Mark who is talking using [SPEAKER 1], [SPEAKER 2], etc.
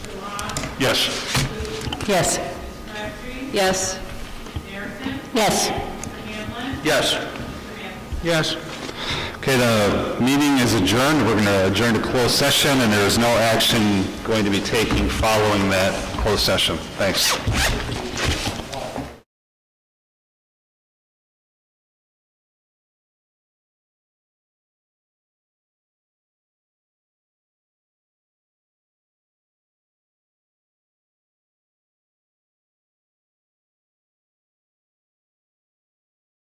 [SPEAKER 1] Yes.
[SPEAKER 2] Yes. Yes. Yes.
[SPEAKER 1] Yes. Yes. Okay, the meeting is adjourned. We're going to adjourn to closed session, and there is no action going to be taken following that closed session. Thanks.